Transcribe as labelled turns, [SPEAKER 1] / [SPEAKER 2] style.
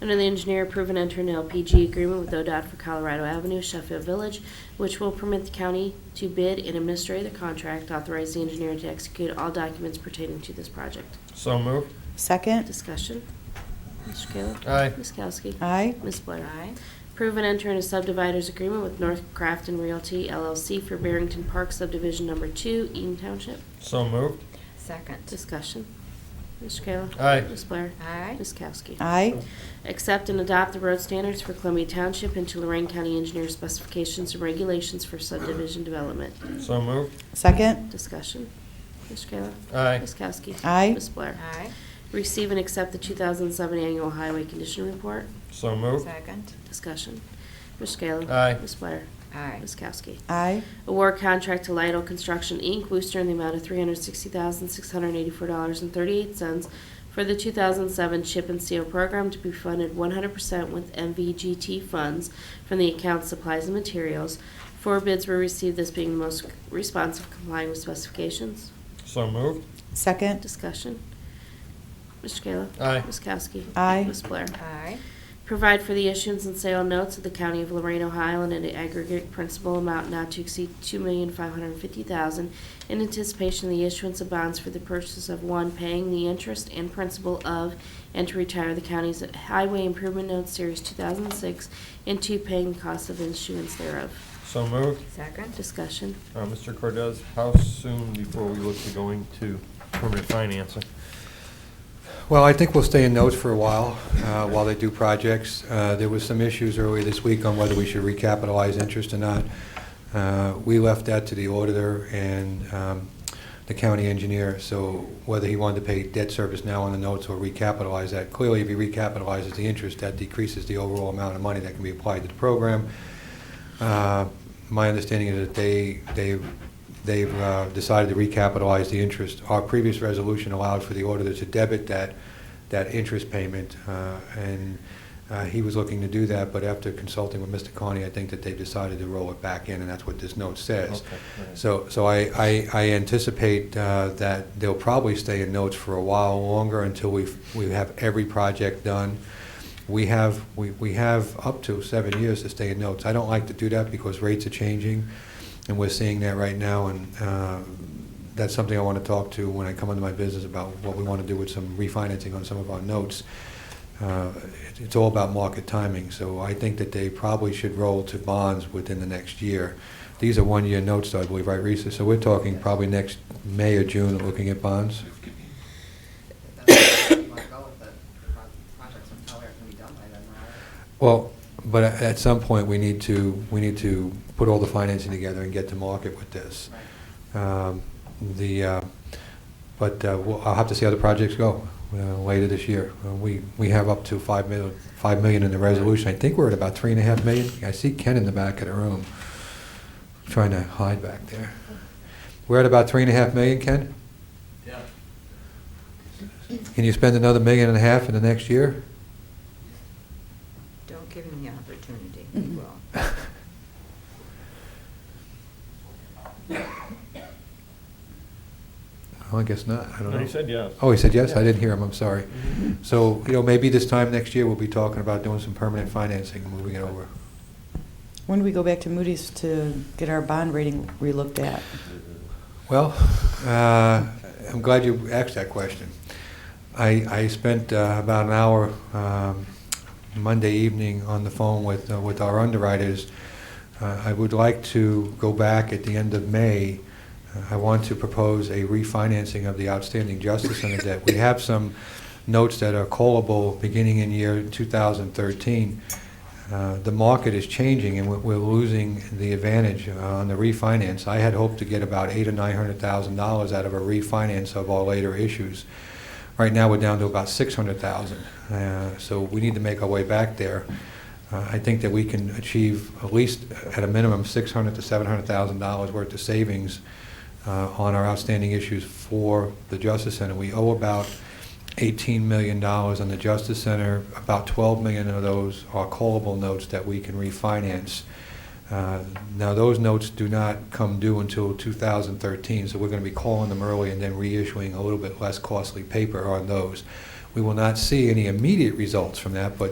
[SPEAKER 1] Under the engineer, approve and enter an LPG agreement with ODOT for Colorado Avenue, Sheffield Village, which will permit the county to bid and administer the contract, authorize the engineer to execute all documents pertaining to this project.
[SPEAKER 2] So moved.
[SPEAKER 3] Second.
[SPEAKER 1] Discussion. Mr. Kayla.
[SPEAKER 2] Aye.
[SPEAKER 1] Ms. Kowski.
[SPEAKER 3] Aye.
[SPEAKER 1] Ms. Blair.
[SPEAKER 4] Aye.
[SPEAKER 1] Approve and enter in a subdividers agreement with North Crafton Realty LLC for Barrington Park Subdivision Number Two, Eaton Township.
[SPEAKER 2] So moved.
[SPEAKER 4] Second.
[SPEAKER 1] Discussion. Mr. Kayla.
[SPEAKER 2] Aye.
[SPEAKER 1] Ms. Blair.
[SPEAKER 4] Aye.
[SPEAKER 1] Ms. Kowski.
[SPEAKER 3] Aye.
[SPEAKER 1] Accept and adopt the road standards for Columbia Township and to Lorraine County Engineer specifications and regulations for subdivision development.
[SPEAKER 2] So moved.
[SPEAKER 3] Second.
[SPEAKER 1] Discussion. Mr. Kayla.
[SPEAKER 2] Aye.
[SPEAKER 1] Ms. Kowski.
[SPEAKER 3] Aye.
[SPEAKER 1] Ms. Blair.
[SPEAKER 4] Aye.
[SPEAKER 1] Receive and accept the 2007 Annual Highway Condition Report.
[SPEAKER 2] So moved.
[SPEAKER 4] Second.
[SPEAKER 1] Discussion. Mr. Kayla.
[SPEAKER 2] Aye.
[SPEAKER 1] Ms. Blair.
[SPEAKER 4] Aye.
[SPEAKER 1] Ms. Kowski.
[SPEAKER 3] Aye.
[SPEAKER 1] Award contract to Lidle Construction, Inc., Wooster, in the amount of $360,684.38 for the 2007 Chip and Seal Program to be funded 100% with MVGT funds from the account supplies and materials. Four bids were received, this being the most responsive complying with specifications.
[SPEAKER 2] So moved.
[SPEAKER 3] Second.
[SPEAKER 1] Discussion. Mr. Kayla.
[SPEAKER 2] Aye.
[SPEAKER 1] Ms. Kowski.
[SPEAKER 3] Aye.
[SPEAKER 1] Ms. Blair.
[SPEAKER 4] Aye.
[SPEAKER 1] Provide for the issuance and sale notes of the County of Lorraine, Ohio, in an aggregate principal amount not to exceed $2,550,000 in anticipation of the issuance of bonds for the purchase of, one, paying the interest and principal of, and to retire the county's Highway Improvement Notes Series 2006, and two, paying the cost of issuance thereof.
[SPEAKER 2] So moved.
[SPEAKER 4] Second.
[SPEAKER 1] Discussion.
[SPEAKER 2] Uh, Mr. Cordez, how soon before we look to going to permanent financing?
[SPEAKER 5] Well, I think we'll stay in notes for a while, uh, while they do projects. Uh, There was some issues earlier this week on whether we should recapitalize interest or not. Uh, We left that to the auditor and um, the county engineer, so whether he wanted to pay debt service now on the notes or recapitalize that. Clearly, if he recapitalizes the interest, that decreases the overall amount of money that can be applied to the program. Uh, My understanding is that they, they, they've uh, decided to recapitalize the interest. Our previous resolution allowed for the auditor to debit that, that interest payment, uh, and uh, he was looking to do that, but after consulting with Mr. Carney, I think that they've decided to roll it back in, and that's what this note says.
[SPEAKER 2] Okay, all right.
[SPEAKER 5] So, so I, I, I anticipate uh, that they'll probably stay in notes for a while longer until we, we have every project done. We have, we, we have up to seven years to stay in notes. I don't like to do that because rates are changing, and we're seeing that right now, and uh, that's something I want to talk to when I come into my business about what we want to do with some refinancing on some of our notes. Uh, it- It's all about market timing, so I think that they probably should roll to bonds within the next year. These are one-year notes, though, I believe, right, Risa? So we're talking probably next May or June, looking at bonds?
[SPEAKER 6] That's where you want to go with the pro- projects, and how they're going to be done by then, right?
[SPEAKER 5] Well, but a- at some point, we need to, we need to put all the financing together and get to market with this.
[SPEAKER 6] Right.
[SPEAKER 5] Um, The, uh, but uh, we'll- I'll have to see how the projects go uh, later this year. Uh, We, we have up to five mil, five million in the resolution. I think we're at about three and a half million. I see Ken in the back of the room, trying to hide back there. We're at about three and a half million, Ken?
[SPEAKER 7] Yeah,
[SPEAKER 5] Can you spend another million and a half in the next year?
[SPEAKER 4] Don't give him the opportunity. He will.
[SPEAKER 5] Well, I guess not. I don't know.
[SPEAKER 2] No, he said yes.
[SPEAKER 5] Oh, he said yes? I
[SPEAKER 2] Yeah. Mm-hmm.
[SPEAKER 5] didn't hear him, I'm sorry. So, you know, maybe this time next year, we'll be talking about doing some permanent financing and moving it over.
[SPEAKER 3] When do we go back to Moody's to get our bond rating relooked at?
[SPEAKER 5] Well, uh, I'm glad you asked that question. I, I spent uh, about an hour um, Monday evening on the phone with, uh, with our underwriters. Uh, I would like to go back at the end of May. Uh, I want to propose a refinancing of the outstanding Justice Center debt. We have some notes that are callable beginning in year 2013. Uh, the market is changing, and we're- we're losing the advantage uh, on the refinance. I had hoped to get about eight or nine hundred thousand dollars out of a refinance of our later issues. Right now, we're down to about six hundred thousand, Uh, so we need to make our way back there. Uh, I think that we can achieve at least, at a minimum, six hundred to seven hundred thousand dollars worth of savings uh, on our outstanding issues for the Justice Center. We owe about $18 million on the Justice Center. About $12 million of those are callable notes that we can refinance. Uh, Now, those notes do not come due until 2013, so we're going to be calling them early and then reissuing a little bit less costly paper on those. We will not see any immediate results from that, but